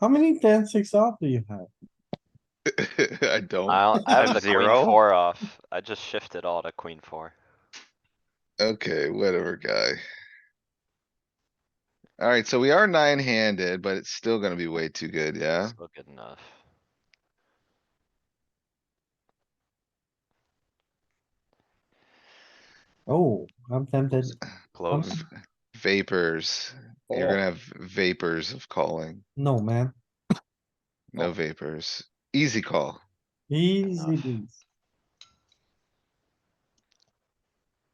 How many ten, six off do you have? I don't. I don't- I have the Zero? queen four off. I just shifted all to queen four. Okay, whatever, guy. Alright, so we are nine handed, but it's still gonna be way too good, yeah? Still good enough. Oh, I'm tempted. Close. Vapors. You're gonna have vapors of calling. No, man. No vapors. Easy call. Easy Enough. beats.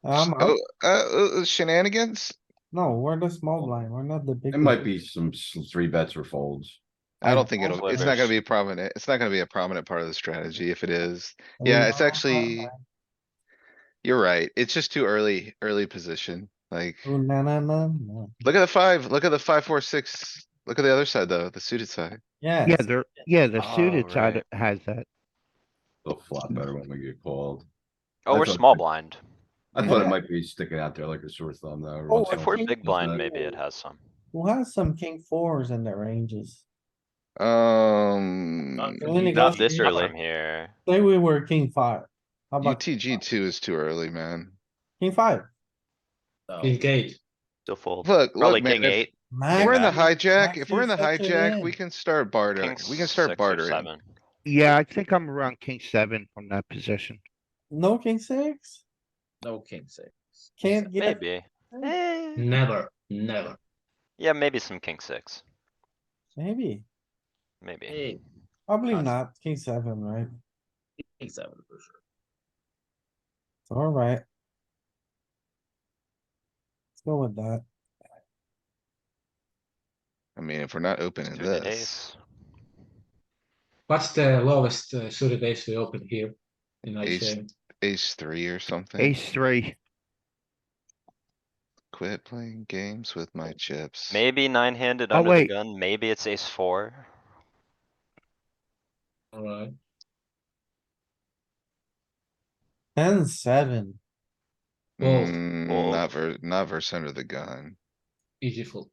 Um, Oh, uh, uh, uh, shenanigans? no, we're the small blind. We're not the big. It might be some s- three bets or folds. I don't think it'll, it's not gonna be Slivers. prominent. It's not gonna be a prominent part of the strategy if it is. blind. Yeah, it's actually. You're right. It's just too early, early position. Like, Oh, na, na, na, na. look at the five, look at the five, four, six. Look at the other side though, the suited side. Yes. Yeah, they're, yeah, the Oh, suited side right. has that. They'll flop Mm. better when we get called. Oh, we're That's small okay. blind. I thought Yeah. it might be sticking out there like a sore thumb though. every Oh, once in a If we're while. think big blind, maybe it so. has some. Who has some king fours in their ranges? Um, Only Not got this king- early here. Say we were king five. How about UTG two is too early, man. king five? King eight. Still fold. Look, Probably look, king man, if eight, if Man, we're in the Yeah. hijack, if Matthew we're in the such a hijack, we man. can start king bartering. We can six start or bartering. seven. Yeah, I think I'm around king seven from that position. No king six? No king six. Can't get, Maybe. Eh, Never, never. Yeah, maybe some king six, maybe, maybe. Hey, probably Us. not, king seven, right? king seven for sure. It's alright. Let's go with that. I mean, if we're not opening Suited this, ace. What's the lowest uh, suited ace we open here? In Ace. ICM? ace three or something, Ace three, quit playing games with my chips. Maybe nine handed Oh, under the wait. gun, maybe it's ace four. Alright, Ten, seven, Well, Mm, well- Not ver, not verse under the gun. easy fold.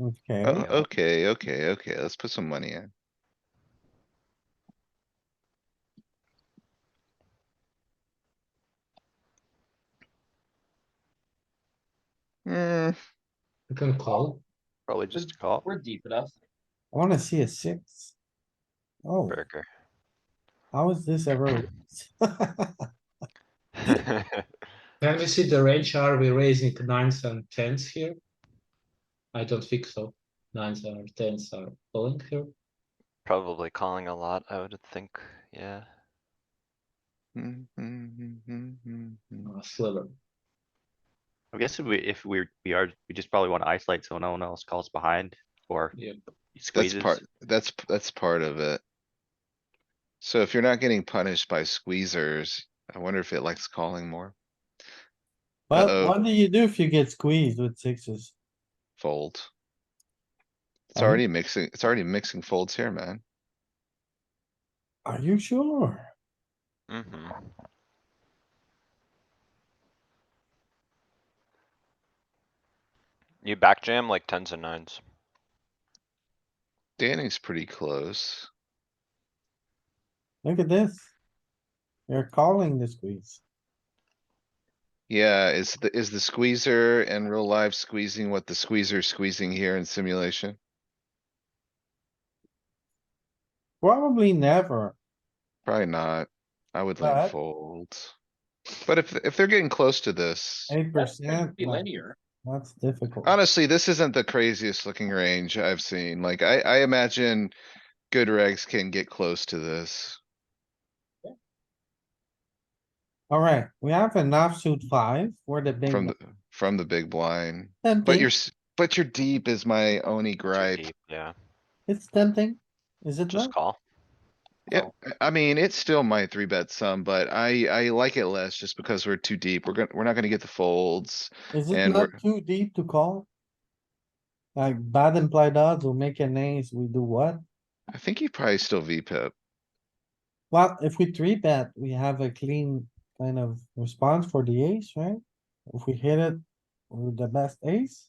okay, Oh, okay, okay, okay. Let's put some money in. Hmm, We can call. Probably just a call, We're deep enough. I wanna see a six. Oh, burger. how is this ever? Can we see the range? Are we raising nines and tens here? I don't think so. Nines or tens are calling here. Probably calling a lot, I would think, yeah. mm, mm, mm, mm, mm, mm. Uh, Sliver. I guess if we, if we, we are, we just probably wanna isolate so no one else calls behind or Yeah. That's squeezes. part, that's, p- that's part of it. So if you're not getting punished by squeezers, I wonder if it likes calling more. But Uh-oh. what do you do if you get squeezed with sixes? Fold. It's Um, already mixing, it's already mixing folds here, man. Are you sure? Mm-hmm. You back jam like tens and nines. Danny's pretty close. Look at this. You're calling the squeeze. Yeah, is the, is the squeezer in real life squeezing what the squeezer's squeezing here in simulation? Probably never. Probably not. I would But- lean folds. But if, if they're getting close to this, Eight That's gonna percent, Be linear. that's difficult. honestly, this isn't the craziest looking range I've seen. Like, I, I imagine good regs can get close to this. Alright, we have an offsuit five. We're the big. From one. the, from the big blind, but Tempting. you're, s- but you're deep is my only too gripe. deep, Yeah, It's tempting. Is it not? just call. Yeah, I mean, it's still my three bet some, but I, I like it less just because we're too deep. We're gonna, we're not gonna get the folds. Is it And not we're- too deep to call? Like bad implied odds will make an ace, we do what? I think you probably still V pip. Well, if we three bet, we have a clean kind of response for the ace, right? If we hit it with the best ace,